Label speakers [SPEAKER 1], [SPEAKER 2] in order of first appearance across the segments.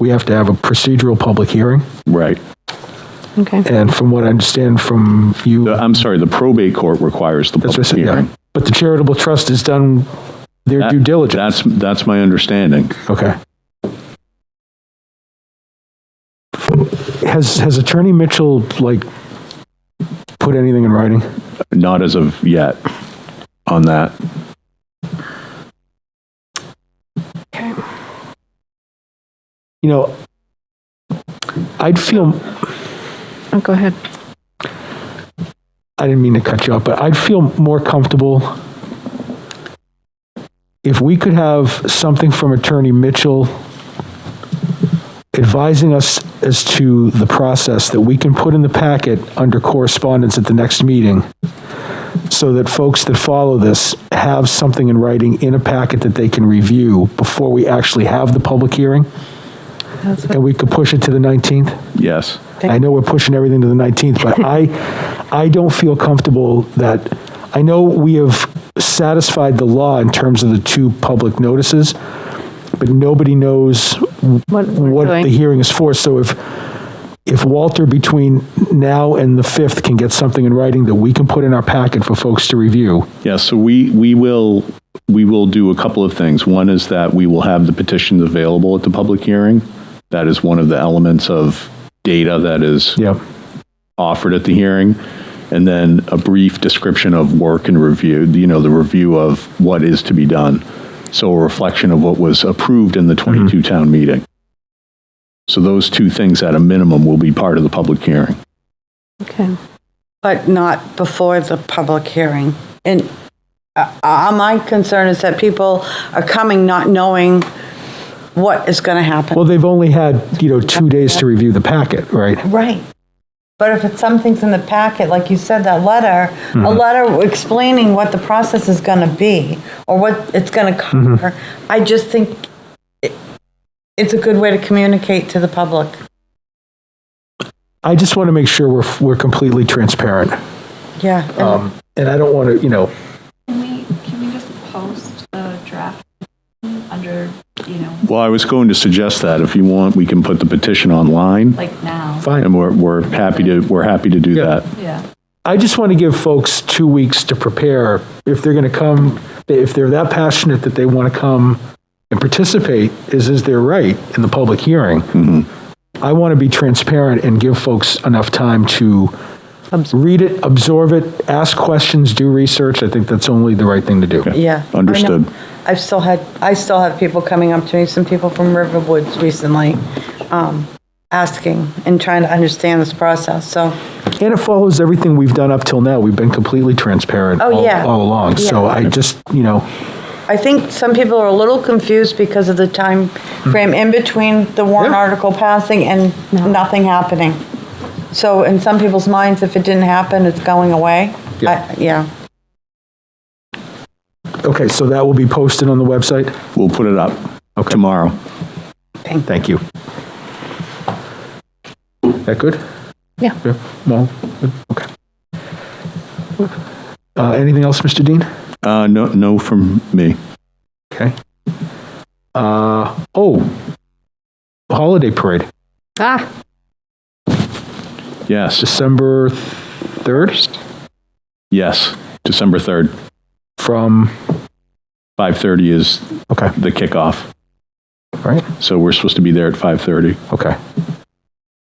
[SPEAKER 1] we have to have a procedural public hearing.
[SPEAKER 2] Right.
[SPEAKER 3] Okay.
[SPEAKER 1] And from what I understand from you,
[SPEAKER 2] The- I'm sorry, the probate court requires the
[SPEAKER 1] that's what
[SPEAKER 2] public
[SPEAKER 1] I said, yeah.
[SPEAKER 2] hearing.
[SPEAKER 1] But the charitable trust has done their
[SPEAKER 2] That-
[SPEAKER 1] due diligence.
[SPEAKER 2] That's, that's my understanding.
[SPEAKER 1] Okay. Has, has Attorney Mitchell, like, put anything in writing?
[SPEAKER 2] Not as of yet on that.
[SPEAKER 1] You know, I'd feel,
[SPEAKER 3] Oh, go ahead.
[SPEAKER 1] I didn't mean to cut you off, but I'd feel more comfortable if we could have something from Attorney Mitchell advising us as to the process that we can put in the packet under correspondence at the next meeting, so that folks that follow this have something in writing in a packet that they can review before we actually have the public hearing,
[SPEAKER 3] That's what
[SPEAKER 1] and we could push it to the 19th?
[SPEAKER 2] Yes.
[SPEAKER 1] I know we're pushing everything to the 19th, but I, I don't feel comfortable that, I know we have satisfied the law in terms of the two public notices, but nobody knows
[SPEAKER 3] What we're
[SPEAKER 1] what the
[SPEAKER 3] doing.
[SPEAKER 1] hearing is for. So if, if Walter between now and the 5th can get something in writing that we can put in our packet for folks to review,
[SPEAKER 2] Yeah, so we, we will, we will do a couple of things. One is that we will have the petitions available at the public hearing. That is one of the elements of data that is
[SPEAKER 1] yeah,
[SPEAKER 2] offered at the hearing. And then a brief description of work and review, you know, the review of what is to be done. So a reflection of what was approved
[SPEAKER 1] Mm-hmm.
[SPEAKER 2] in the 22 town meeting. So those two things at a minimum will be part of the public hearing.
[SPEAKER 3] Okay.
[SPEAKER 4] But not before the public hearing. And uh, uh, my concern is that people are coming not knowing what is going to happen.
[SPEAKER 1] well, they've only had, you know, two days to review the packet, right?
[SPEAKER 4] Right. But if it's something's in the packet, like you said, that letter, a letter explaining what the process is going to be or what it's going to cover, I just think it- it's a good way to communicate to the public.
[SPEAKER 1] I just want to make sure we're, we're completely transparent.
[SPEAKER 4] Yeah. and-
[SPEAKER 1] Um, And I don't want to, you know,
[SPEAKER 5] Can we, can we just post the draft under, you know,
[SPEAKER 2] Well, I was going to suggest that if you want, we can put the petition online
[SPEAKER 5] like now?
[SPEAKER 1] fine.
[SPEAKER 2] and we're, we're happy to, we're happy to do
[SPEAKER 1] Yeah.
[SPEAKER 2] that.
[SPEAKER 5] Yeah.
[SPEAKER 1] I just want to give folks two weeks to prepare. If they're going to come, if they're that passionate that they want to come and participate, is, is their right in the public hearing. I want to be transparent and give folks enough time to read it, absorb it, ask questions, do research. I think that's only the right thing to do.
[SPEAKER 4] Yeah. I know.
[SPEAKER 2] Understood.
[SPEAKER 4] I've still had, I still have people coming up to me, some people from Riverwoods recently, um, asking and trying to understand this process, so,
[SPEAKER 1] And it follows everything we've done up till now. We've been completely transparent
[SPEAKER 4] Oh,
[SPEAKER 1] all
[SPEAKER 4] yeah.
[SPEAKER 1] all along. So I just, you know,
[SPEAKER 4] I think some people are a little confused because of the time frame in between the warrant
[SPEAKER 1] Yeah.
[SPEAKER 4] article passing and nothing happening. So in some people's minds, if it didn't happen, it's going away.
[SPEAKER 1] Yeah.
[SPEAKER 4] I- Yeah.
[SPEAKER 1] okay, so that will be posted on the website?
[SPEAKER 2] We'll put it up tomorrow.
[SPEAKER 1] Thank you. That good?
[SPEAKER 3] Yeah.
[SPEAKER 1] Well, good, okay. Uh, Anything else, Mr. Dean?
[SPEAKER 2] Uh, no, no from me.
[SPEAKER 1] Okay. Uh, Oh, holiday parade,
[SPEAKER 3] Ah,
[SPEAKER 2] Yes,
[SPEAKER 1] December 3rd
[SPEAKER 2] yes. December 3rd,
[SPEAKER 1] from,
[SPEAKER 2] 5:30 is
[SPEAKER 1] okay,
[SPEAKER 2] the kickoff.
[SPEAKER 1] all right,
[SPEAKER 2] So we're supposed to be there at 5:30.
[SPEAKER 1] okay.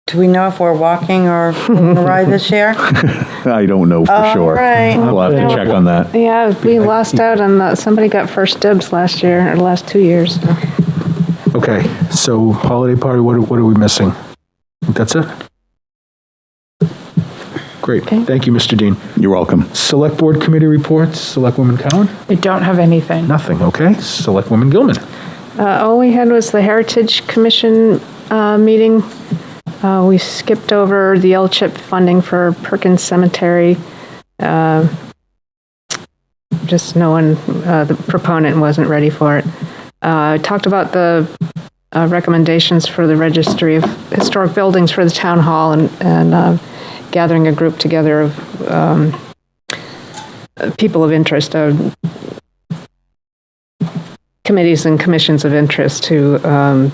[SPEAKER 4] Do we know if we're walking or taking a ride this year?
[SPEAKER 2] I don't know for
[SPEAKER 4] All
[SPEAKER 2] sure.
[SPEAKER 4] right.
[SPEAKER 2] We'll have to check on that.
[SPEAKER 3] yeah, we lost out on the, somebody got first dibs last year, or last two years.
[SPEAKER 1] Okay, so holiday party, what, are- what are we missing? Think That's it? Great,
[SPEAKER 3] Okay.
[SPEAKER 1] thank you, Mr. Dean.
[SPEAKER 2] You're welcome.
[SPEAKER 1] Select Board Committee reports, Selectwoman Cowan?
[SPEAKER 6] I don't have anything.
[SPEAKER 1] Nothing, okay. Selectwoman Gilman?
[SPEAKER 3] Uh, all we had was the Heritage Commission, uh, meeting. Uh, we skipped over the L-chip funding for Perkins Cemetery. Uh, Just no one, uh, the proponent wasn't ready for it. Uh, talked about the, uh, recommendations for the Registry of Historic Buildings for the Town Hall and, and, uh, gathering a group together of, um, uh, people of interest, uh, committees and commissions of interest to um,